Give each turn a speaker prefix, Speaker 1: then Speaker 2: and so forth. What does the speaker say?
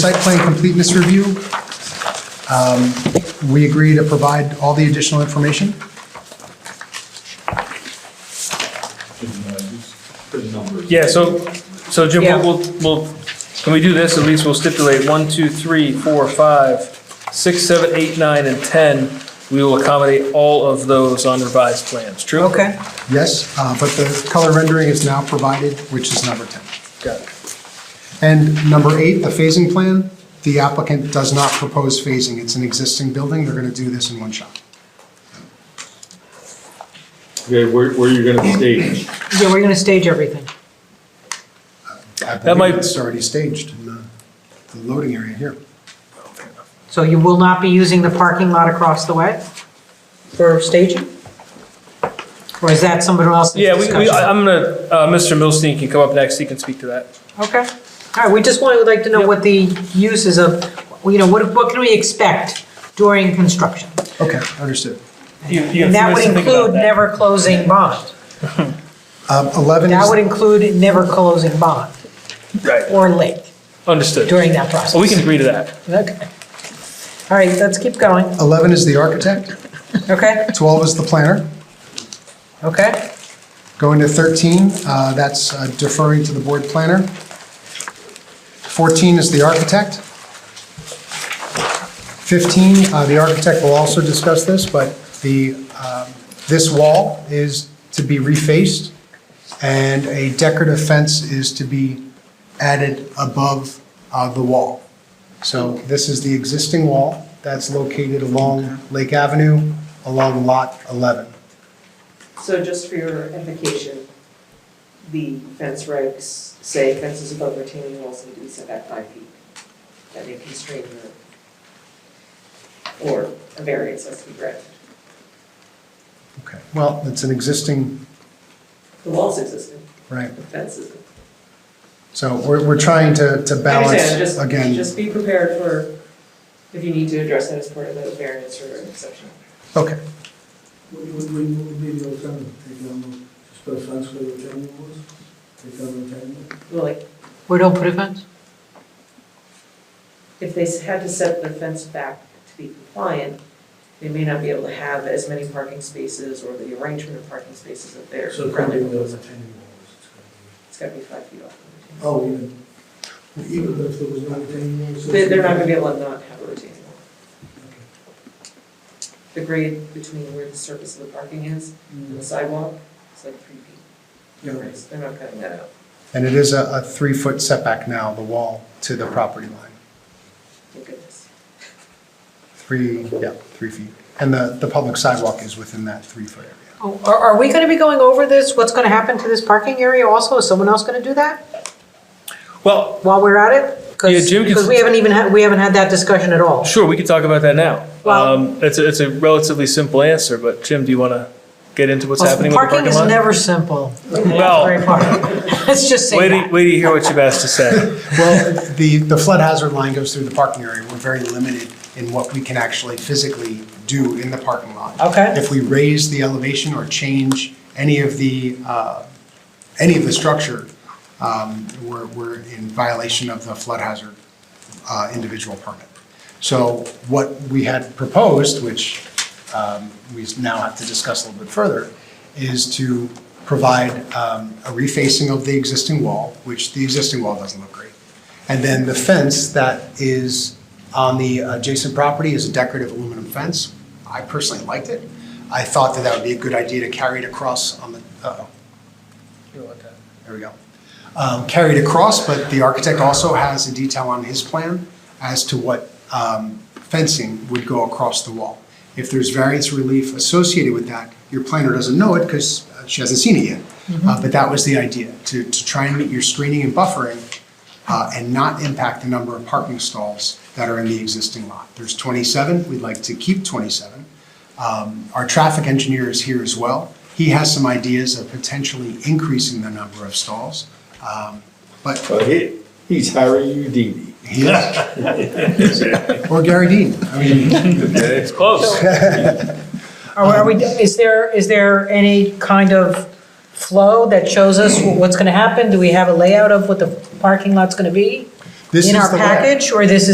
Speaker 1: Site plan completeness review. Um, We agree to provide all the additional information.
Speaker 2: Yeah, so, so Jim,
Speaker 3: Yeah.
Speaker 2: we'll, we'll- we'll, can we do this? At least we'll stipulate one, two, three, four, five, six, seven, eight, nine, and 10. We will accommodate all of those on revised plans, true?
Speaker 3: Okay,
Speaker 1: Yes, uh, but the color rendering is now provided, which is number 10.
Speaker 2: Got it.
Speaker 1: And number eight, the phasing plan, the applicant does not propose phasing. It's an existing building, they're going to do this in one shot.
Speaker 4: Okay, where, where are you gonna stage?
Speaker 3: yeah, we're gonna stage everything.
Speaker 1: I
Speaker 2: That
Speaker 1: believe
Speaker 2: might-
Speaker 1: It's already staged in the the loading area here.
Speaker 3: So you will not be using the parking lot across the way for staging? Or is that somebody else's
Speaker 2: Yeah, we, we, I-
Speaker 3: discussion?
Speaker 2: I'm gonna, uh, Mr. Milstein can come up next, he can speak to that.
Speaker 3: Okay, all right, we just wanted, would like to know what the uses of, you know, what, what can we expect during construction?
Speaker 1: Okay, understood.
Speaker 2: You- you have
Speaker 3: And that
Speaker 2: a few minutes
Speaker 3: would
Speaker 2: to think about
Speaker 3: include
Speaker 2: that.
Speaker 3: never closing bond.
Speaker 1: Um, 11
Speaker 3: That would
Speaker 1: is,
Speaker 3: include never closing bond
Speaker 2: Right,
Speaker 3: or late
Speaker 2: understood.
Speaker 3: during that process.
Speaker 2: Well, we can agree to that.
Speaker 3: Okay. All right, let's keep going,
Speaker 1: 11 is the architect,
Speaker 3: okay,
Speaker 1: 12 is the planner.
Speaker 3: okay?
Speaker 1: Going to 13, uh, that's uh, deferring to the board planner. 14 is the architect. 15, uh, the architect will also discuss this, but the, um, this wall is to be refaced, and a decorative fence is to be added above uh, the wall. So this is the existing wall that's located along Lake Avenue, along Lot 11.
Speaker 5: So just for your implication, the fence regs say fences above retaining walls need to be set back five feet. That may constrain your, or a variance has to be granted.
Speaker 1: Okay, well, it's an existing
Speaker 5: The walls existed,
Speaker 1: Right,
Speaker 5: the fence isn't.
Speaker 1: so we're, we're trying to, to
Speaker 5: I understand,
Speaker 1: balance,
Speaker 5: just,
Speaker 1: again,
Speaker 5: just be prepared for, if you need to address that as part of the variance or exception.
Speaker 1: okay,
Speaker 6: What would we, what would be the alternative, take down the, just put a fence where the retaining wall is, take down the retaining wall?
Speaker 5: Well, like,
Speaker 3: We don't put a fence?
Speaker 5: if they had to set the fence back to be compliant, they may not be able to have as many parking spaces or the arrangement of parking spaces that they're.
Speaker 6: So it could be
Speaker 5: currently
Speaker 6: the
Speaker 5: proposing.
Speaker 6: retaining walls.
Speaker 5: It's gotta be five feet off. the
Speaker 6: Oh, even, even if there was no retaining walls?
Speaker 5: retaining wall. They, they're not gonna be able to not have a retaining wall.
Speaker 6: Okay.
Speaker 5: The grade between where the surface of the parking is and the sidewalk is like three feet.
Speaker 6: Mm. Yeah, right.
Speaker 5: They're not cutting that out.
Speaker 1: and it is a, a three-foot setback now, the wall to the property line,
Speaker 5: Thank goodness.
Speaker 1: three, yeah, three feet, and the, the public sidewalk is within that three-foot area.
Speaker 3: Oh, Are, are we gonna be going over this, what's gonna happen to this parking area also? Is someone else gonna do that
Speaker 2: Well,
Speaker 3: while we're at it? 'Cause-
Speaker 2: Yeah, Jim can-
Speaker 3: Because we haven't even had, we haven't had that discussion at all.
Speaker 2: sure, we can talk about that now.
Speaker 3: Well-
Speaker 2: Um, it's, a- it's a relatively simple answer, but Jim, do you wanna get into what's happening with the
Speaker 3: Parking
Speaker 2: parking
Speaker 3: is
Speaker 2: lot?
Speaker 3: never simple.
Speaker 2: Well-
Speaker 3: Very far. Let's just say
Speaker 2: Wait, to-
Speaker 3: that.
Speaker 2: wait to hear what you've asked to say.
Speaker 1: Well, the, the flood hazard line goes through the parking area, we're very limited in what we can actually physically do in the parking lot.
Speaker 3: Okay.
Speaker 1: If we raise the elevation or change any of the, uh, any of the structure, um, we're, we're in violation of the flood hazard uh, individual permit. So what we had proposed, which um, we now have to discuss a little bit further, is to provide um, a refacing of the existing wall, which the existing wall doesn't look great. And then the fence that is on the adjacent property is a decorative aluminum fence. I personally liked it. I thought that that would be a good idea to carry it across on the, uh-oh, there we go. Um, Carried across, but the architect also has a detail on his plan as to what um, fencing would go across the wall. If there's variance relief associated with that, your planner doesn't know it because she hasn't seen it yet. Uh, But that was the idea, to, to try and meet your screening and buffering uh, and not impact the number of parking stalls that are in the existing lot. There's 27, we'd like to keep 27. Um, Our traffic engineer is here as well. He has some ideas of potentially increasing the number of stalls. Um, But
Speaker 4: But Uh, he, he's Harry Houdini.
Speaker 1: he is. Or Gary Dean. I mean,
Speaker 2: It's close.
Speaker 3: Are, are we, is there, is there any kind of flow that shows us what's gonna happen? Do we have a layout of what the parking lot's gonna be?
Speaker 1: This
Speaker 3: in
Speaker 1: is
Speaker 3: our
Speaker 1: the way.
Speaker 3: package, or this is